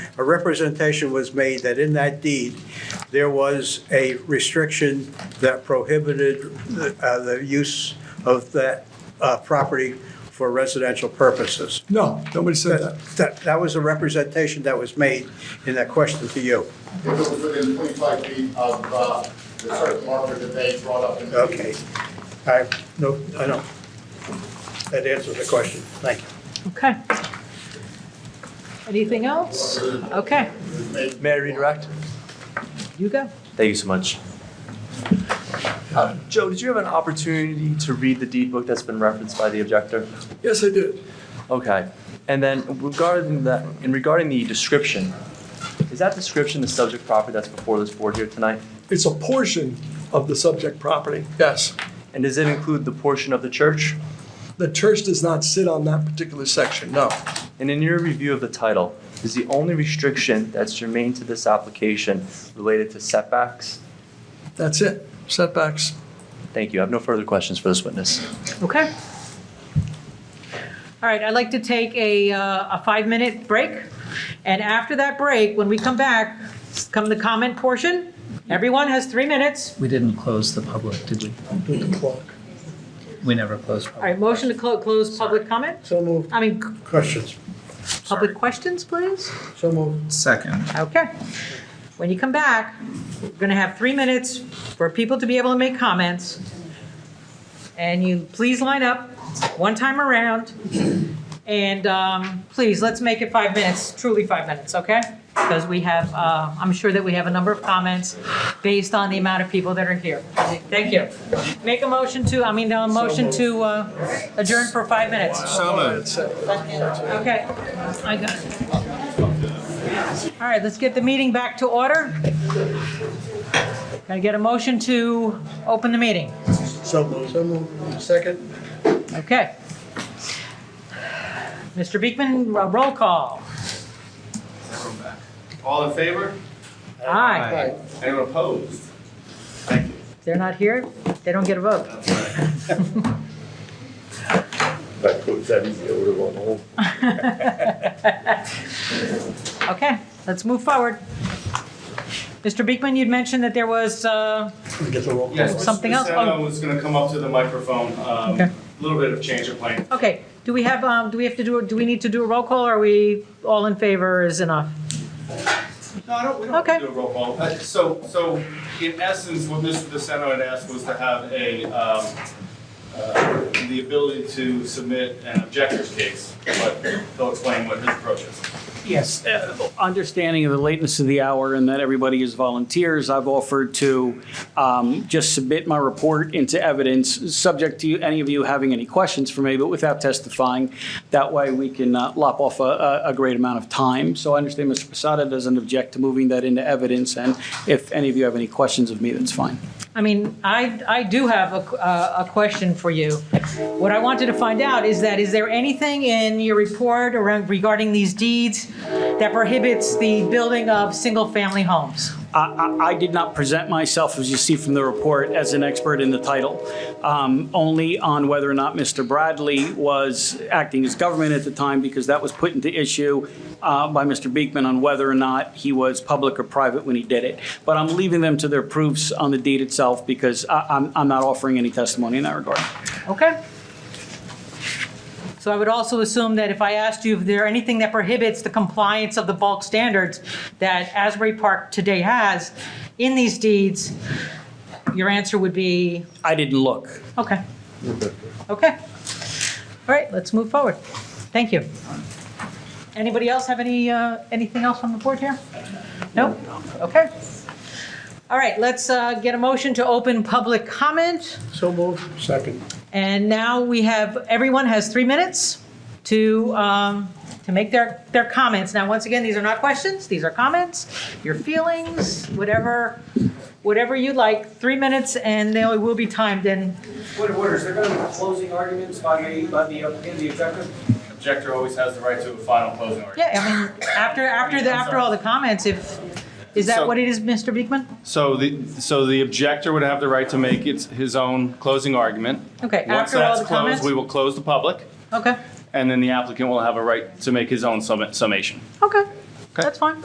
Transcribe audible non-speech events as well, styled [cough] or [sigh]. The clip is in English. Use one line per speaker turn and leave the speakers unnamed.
a representation was made that in that deed, there was a restriction that prohibited the, uh, the use of that, uh, property for residential purposes.
No, nobody said that.
That, that was a representation that was made in that question to you.
If it was within 25 feet of uh, the certain marker that they brought up in the meeting.
Okay. I, no, I don't. That answers the question. Thank you.
Okay. Anything else? Okay,
May I redirect?
you go.
Thank you so much. Uh, Joe, did you have an opportunity to read the deed book that's been referenced by the objector?
Yes, I did.
Okay. And then regarding that, in regarding the description, is that description the subject property that's before this board here tonight?
It's a portion of the subject property, yes.
And does it include the portion of the church?
The church does not sit on that particular section, no.
And in your review of the title, is the only restriction that's germane to this application related to setbacks?
That's it, setbacks.
Thank you. I have no further questions for this witness.
Okay. All right, I'd like to take a, uh, a five-minute break. And after that break, when we come back, come the comment portion. Everyone has three minutes.
We didn't close the public, did we? We never closed.
All right, motion to clo- close public comment?
So moved.
I mean, c-
Questions?
public questions, please?
So moved.
Second.
Okay. When you come back, we're going to have three minutes for people to be able to make comments. And you please line up one time around. And um, please, let's make it five minutes, truly five minutes, okay? Because we have, uh, I'm sure that we have a number of comments based on the amount of people that are here. Thank you. Make a motion to, I mean, a motion to uh, adjourn for five minutes. Okay, I got it. All right, let's get the meeting back to order. Can I get a motion to open the meeting?
So moved. So moved. Second?
Okay. Mr. Beekman, ro- roll call.
All in favor?
Aye.
Anyone opposed? Thank you.
If they're not here, they don't get a vote.
[laughs] That puts everything over one whole
[laughs] Okay, let's move forward. Mr. Beekman, you'd mentioned that there was, uh,
Get the roll call.
Yes,
Something else?
Mr. Senna
Oh.
was gonna come up to the microphone, um,
Okay.
a little bit of change of plan.
okay, do we have, um, do we have to do, do we need to do a roll call? or Are we all in favor is enough?
No, I don't, we don't
Okay.
have to do a roll call. Uh, So, so in essence, what Mr. DeSanto had asked was to have a, um, uh, the ability to submit an objector's case, but he'll explain what his approach is.
Yes, uh, understanding of the lateness of the hour and that everybody is volunteers, I've offered to um, just submit my report into evidence, subject to you- any of you having any questions for me, but without testifying. That way, we can uh, lop off a- a a great amount of time. So I understand Mr. Posada doesn't object to moving that into evidence, and if any of you have any questions of me, that's fine.
I mean, I, I do have a, uh, a- a question for you. What I wanted to find out is that, is there anything in your report around regarding these deeds that prohibits the building of single-family homes?
I, I- I did not present myself, as you see from the report, as an expert in the title, um, only on whether or not Mr. Bradley was acting as government at the time, because that was put into issue uh, by Mr. Beekman on whether or not he was public or private when he did it. But I'm leaving them to their proofs on the deed itself, because I, I'm, I'm not offering any testimony in that regard.
Okay? So I would also assume that if I asked you if there anything that prohibits the compliance of the bulk standards that Asbury Park today has in these deeds, your answer would be,
I didn't look.
okay. Okay. All right, let's move forward. Thank you. Anybody else have any, uh, anything else on the board here? No? Okay. All right, let's uh, get a motion to open public comment.
So moved. Second.
And now we have, everyone has three minutes to, um, to make their, their comments. Now, once again, these are not questions, these are comments, your feelings, whatever, whatever you'd like, three minutes, and they will be timed, and
Point of order, is there going to be closing arguments by the, by the, in the objective?
Objector always has the right to a final closing argument.
Yeah, I mean, after, after, the after all the comments, if, is that
So-
what it is, Mr. Beekman?
So the, so the objector would have the right to make its, his own closing argument.
Okay,
Once
after all
that's
the
closed,
comments?
we will close the public,
Okay,
and then the applicant will have a right to make his own summa- summation.
okay, that's fine.